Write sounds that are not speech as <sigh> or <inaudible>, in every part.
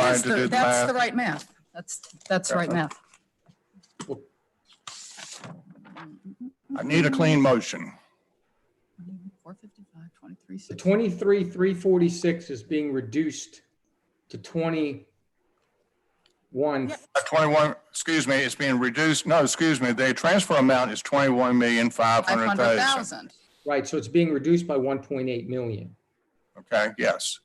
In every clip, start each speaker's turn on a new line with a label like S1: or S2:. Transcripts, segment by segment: S1: trying
S2: is,
S1: to
S2: the-
S1: do the
S2: that's the
S1: math.
S2: right math. That's, that's right math.
S1: I need a clean motion.
S2: Four fifty-five, twenty-three,
S3: The
S2: six.
S3: twenty-three, three forty-six is being reduced to twenty-one.
S1: Uh, Twenty-one, excuse me, it's being reduced, no, excuse me, the transfer amount is twenty-one million, five
S2: Five
S1: hundred
S2: hundred
S1: thousand.
S2: thousand.
S3: Right, so it's being reduced by one point eight million.
S1: Okay, yes,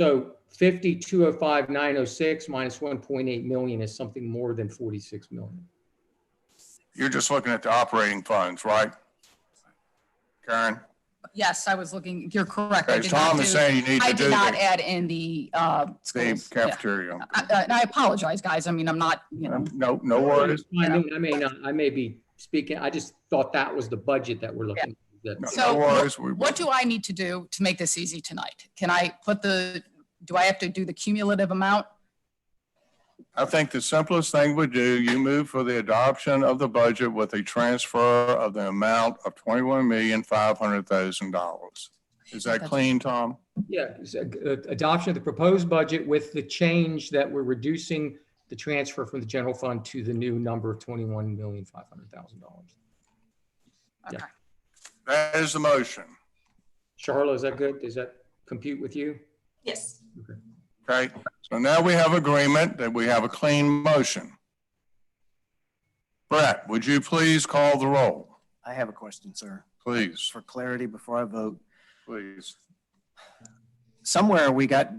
S3: So fifty-two oh five, nine oh six minus one point eight million is something more than forty-six million.
S1: you're just looking at the operating funds, right? Karen,
S2: Yes, I was looking, you're correct. I
S1: okay,
S2: did not
S1: Tom is
S2: do-
S1: saying you need
S2: I
S1: to do
S2: did not
S1: the,
S2: add in the, uh,
S1: the
S2: schools. Yeah.
S1: cafeteria.
S2: I- I- And I apologize, guys. I mean, I'm not, you know,
S1: No, no worries,
S3: I mean, I may not, I may be speaking, I just thought that was the budget that we're looking. at.
S1: no
S2: So,
S1: no worries. We-
S2: what do I need to do to make this easy tonight? Can I put the, do I have to do the cumulative amount?
S1: I think the simplest thing we do, you move for the adoption of the budget with a transfer of the amount of twenty-one million, five hundred thousand dollars. Is that
S2: That's-
S1: clean, Tom?
S3: Yeah, it's a- a- adoption of the proposed budget with the change that we're reducing the transfer from the general fund to the new number of twenty-one million, five hundred thousand dollars. Yeah.
S2: Okay.
S1: That is the motion.
S3: Charlotte, is that good? Does that compute with you?
S4: Yes.
S1: Okay, so now we have agreement that we have a clean motion. Brett, would you please call the roll?
S5: I have a question, sir.
S1: Please,
S5: For clarity, before I vote,
S1: please.
S5: somewhere we got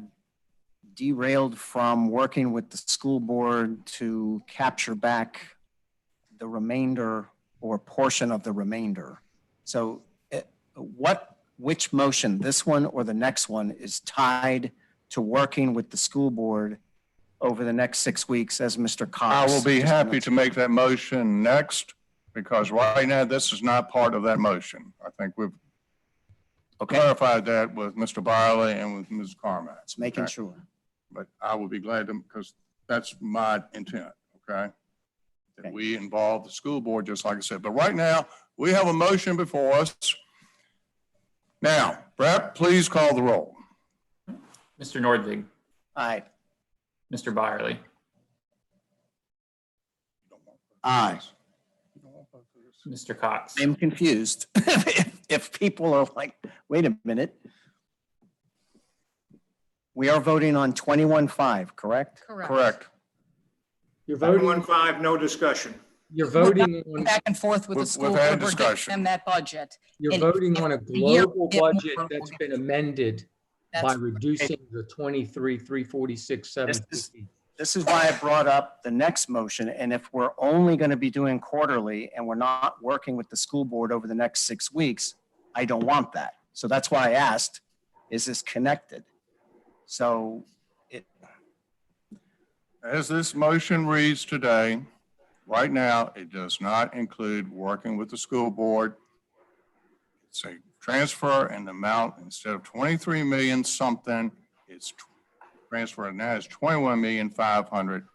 S5: derailed from working with the school board to capture back the remainder or portion of the remainder. So eh, what, which motion, this one or the next one, is tied to working with the school board over the next six weeks as Mr.
S1: I
S5: Cox?
S1: will be happy to make that motion next because right now this is not part of that motion. I think we've
S5: Okay,
S1: clarified that with Mr. Byerly and with Ms. Carmack.
S5: it's making
S1: Okay.
S5: sure.
S1: But I will be glad to, because that's my intent, okay? That
S5: Okay.
S1: we involve the school board, just like I said. But right now, we have a motion before us. Now, Brett, please call the roll.
S6: Mr. Nordvig,
S5: Aye.
S6: Mr. Byerly,
S5: Aye.
S6: Mr. Cox,
S5: I'm confused. <laughs> If if people are like, wait a minute. We are voting on 21.5, correct?
S1: Correct.
S3: You're voting,
S7: One five, no discussion.
S3: you're voting
S2: Go
S3: on,
S2: Back and forth with the
S1: We've-
S2: school.
S1: we've had
S2: board. We're giving
S1: discussion.
S2: Them that budget.
S3: you're
S2: And-
S3: voting on a
S2: year
S3: global
S2: we get more-
S3: budget that's been amended by
S2: That's,
S3: reducing the twenty-three, three forty-six, seven
S5: This
S3: fifty.
S5: This is why I brought up the next motion, and if we're only going to be doing quarterly and we're not working with the school board over the next six weeks, I don't want that. So that's why I asked, is this connected? So
S1: As this motion reads today, right now, it does not include working with the school board. It's a transfer and amount, instead of 23 million something, it's tw- transfer and now it's 21 million 500.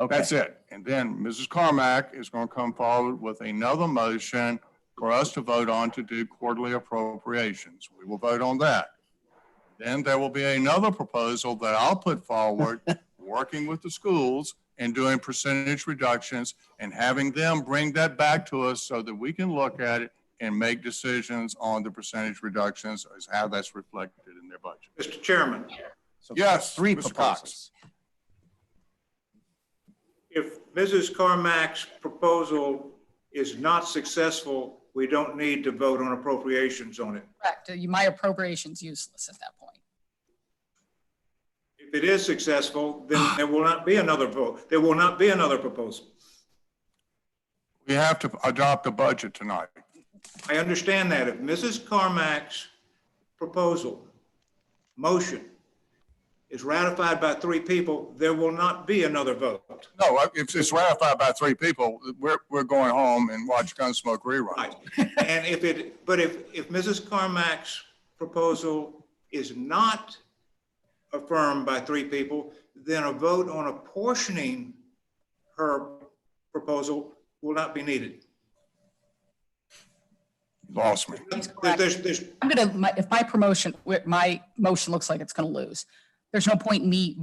S5: Okay,
S1: That's it. And then Mrs. Carmack is going to come forward with another motion for us to vote on to do quarterly appropriations. We will vote on that. Then there will be another proposal that I'll put forward, working with the schools and doing percentage reductions and having them bring that back to us so that we can look at it and make decisions on the percentage reductions as how that's reflected in their budget.
S7: Mr. Chairman,
S5: so
S1: Yes,
S5: Three
S1: Mr. Cox.
S5: proposals.
S7: if Mrs. Carmack's proposal is not successful, we don't need to vote on appropriations on it.
S2: correct. Uh, You- My appropriation's useless at that point.
S7: If it is successful, then there will not be another vote. There will not be another proposal.
S1: We have to adopt a budget tonight.
S7: I understand that. If Mrs. Carmack's proposal, motion, is ratified by three people, there will not be another vote.
S1: No, I- if it's ratified by three people, we're, we're going home and watch Gunsmoke reruns.
S7: Right. And if it, but if, if Mrs. Carmack's proposal is not affirmed by three people, then a vote on apportioning her proposal will not be needed.
S1: Lost me.
S7: There- There's, there's,
S2: I'm gonna, my- if my promotion, my motion looks like it's gonna lose, there's no point in me